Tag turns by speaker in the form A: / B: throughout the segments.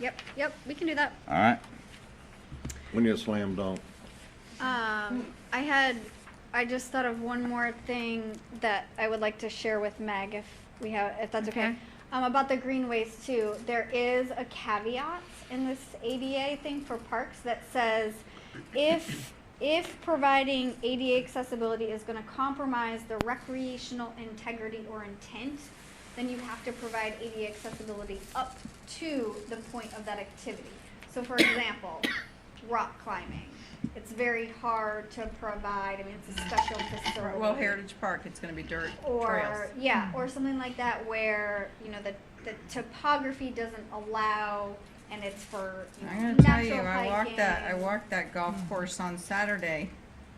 A: Yep, yep, we can do that.
B: All right.
C: When you slam dunk.
A: Um, I had, I just thought of one more thing that I would like to share with Meg if we have, if that's okay.
D: Okay.
A: Um, about the green waste too, there is a caveat in this ADA thing for parks that says if, if providing ADA accessibility is gonna compromise the recreational integrity or intent, then you have to provide ADA accessibility up to the point of that activity. So for example, rock climbing, it's very hard to provide, I mean, it's a special facility.
D: Well, Heritage Park, it's gonna be dirt trails. Mm-hmm.
A: Or, yeah, or something like that where, you know, the, the topography doesn't allow and it's for, you know,
D: I'm gonna
A: natural hiking.
D: tell you, I walked that, I walked that golf course on Saturday,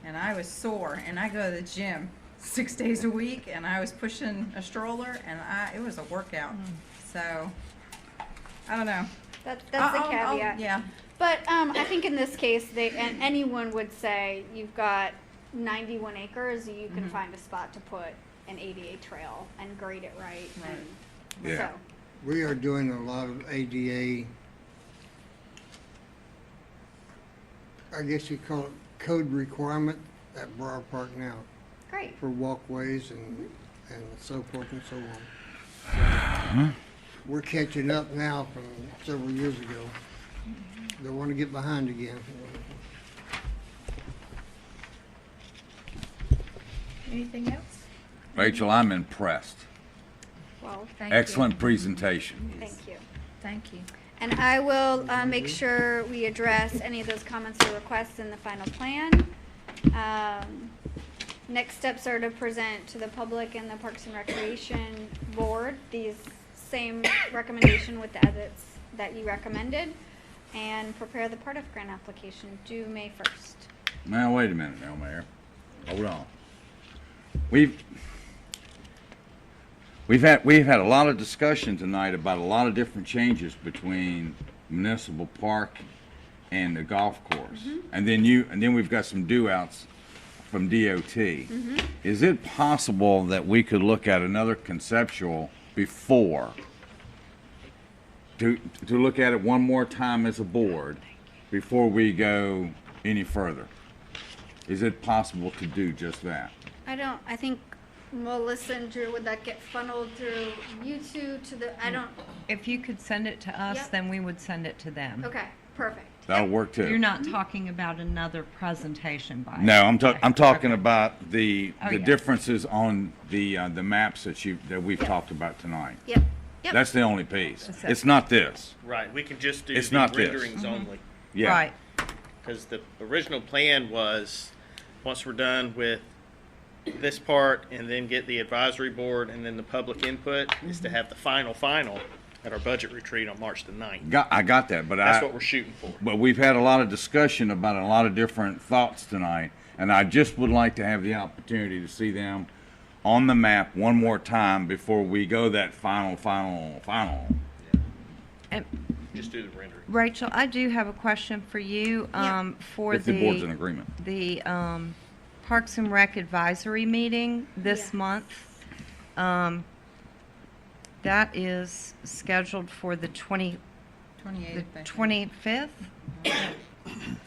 D: and I was sore, and I go to the gym six days a week, and I was pushing a stroller, and I, it was a workout, so, I don't know.
A: That, that's the
D: I'll- I'll- I'll-
A: caveat.
D: Yeah,
A: But um, I think in this case, they and anyone would say you've got 91 acres, you
D: Mm-hmm.
A: can find a spot to put an ADA trail and grade it right. And
B: Yeah.
A: So
E: We are doing a lot of ADA, I guess you call it code requirement at Briar Park now
A: great.
E: for walkways and, and so forth and so on. So, We're catching up now from several years ago. Don't want to get behind again.
D: anything else?
B: Rachel, I'm impressed.
A: Well,
D: Thank you.
B: Excellent presentation.
A: thank you.
D: Thank you.
A: And I will uh, make sure we address any of those comments or requests in the final plan. Um, Next steps are to present to the public and the Parks and Recreation Board these same recommendation with the edits that you recommended, and prepare the part of grant application due May 1st.
B: Now, wait a minute now, Mayor. Hold on. We've, we've had, we've had a lot of discussion tonight about a lot of different changes between municipal park and the golf course. And then you, and then we've got some due outs from DOT. Is it possible that we could look at another conceptual before? To, to look at it one more time as a board before we go any further? Is it possible to do just that?
A: I don't, I think Melissa and Drew, would that get funneled through you two to the, I don't,
F: If you could send it to us,
A: Yep.
F: then we would send it to them.
A: okay, perfect.
B: That'll work too.
F: You're not
A: Mm-hmm.
F: talking about another presentation by.
B: No, I'm talking, I'm talking about the,
F: Oh,
B: the
F: yeah.
B: differences on the, uh, the maps that you, that we've talked about tonight.
A: Yep, yep.
B: That's the only piece.
F: That's it.
B: It's not this.
G: Right, we can just do
B: It's
G: the
B: not this.
G: renderings only,
B: Yeah.
F: Right,
G: because the original plan was, once we're done with this part and then get the advisory board and then the public input, is to have the final, final at our budget retreat on March the ninth.
B: Got, I got that, but I.
G: That's what we're shooting for.
B: But we've had a lot of discussion about a lot of different thoughts tonight, and I just would like to have the opportunity to see them on the map one more time before we go that final, final, final.
F: and
G: Just do the rendering.
F: Rachel, I do have a question for you,
A: Yeah.
F: um, for
B: If the board's in
F: the,
B: agreement.
F: the, um, Parks and Rec Advisory Meeting this
A: Yeah.
F: month. Um, that is scheduled for the twenty, the
D: Twenty-eighth, I think.
F: twenty-fifth?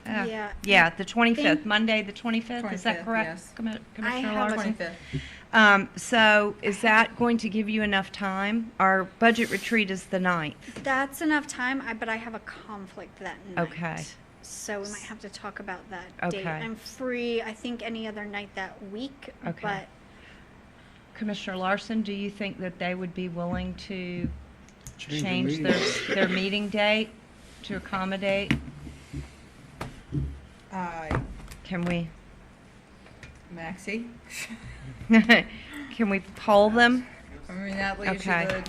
A: Yeah.
F: Yeah, the
A: Think-
F: twenty-fifth, Monday, the twenty-fifth, is
D: 25th,
F: that
D: yes.
F: correct? Commi- Commissioner
A: have a-
F: Larson?
D: Twenty-fifth.
F: Um, so is that going to give you enough time? Our budget retreat is the ninth.
A: That's enough time, I, but I have a conflict that night.
F: Okay.
A: So we might have to talk about that date.
F: Okay.
A: I'm free, I think, any other night that week,
F: Okay.
A: but
F: Commissioner Larson, do you think that they would be willing to
E: the
F: change
E: meeting.
F: their, their meeting date to accommodate?
D: Uh,
F: Can we,
D: Maxie,
F: can we poll them?
D: I mean, that leaves you
F: Okay.
D: the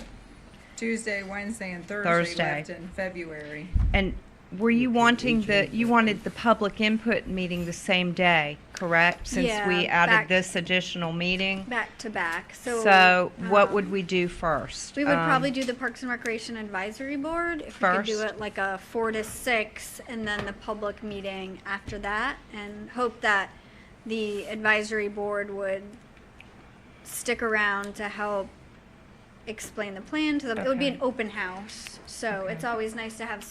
D: Tuesday, Wednesday, and Thursday
F: Thursday.
D: left in February.
F: And were you wanting the, you wanted the public input meeting the same day, correct? Since
A: Yeah,
F: we
A: back-
F: added this additional meeting?
A: back to back, so.
F: So what would
A: um,
F: we do first?
A: We would
F: Um,
A: probably do the Parks and Recreation Advisory Board, if we could do
F: First.
A: it like a four to six, and then the public meeting after that, and hope that the advisory board would stick around to help explain the plan to them. It would be
F: Okay.
A: an open house, so it's always nice to have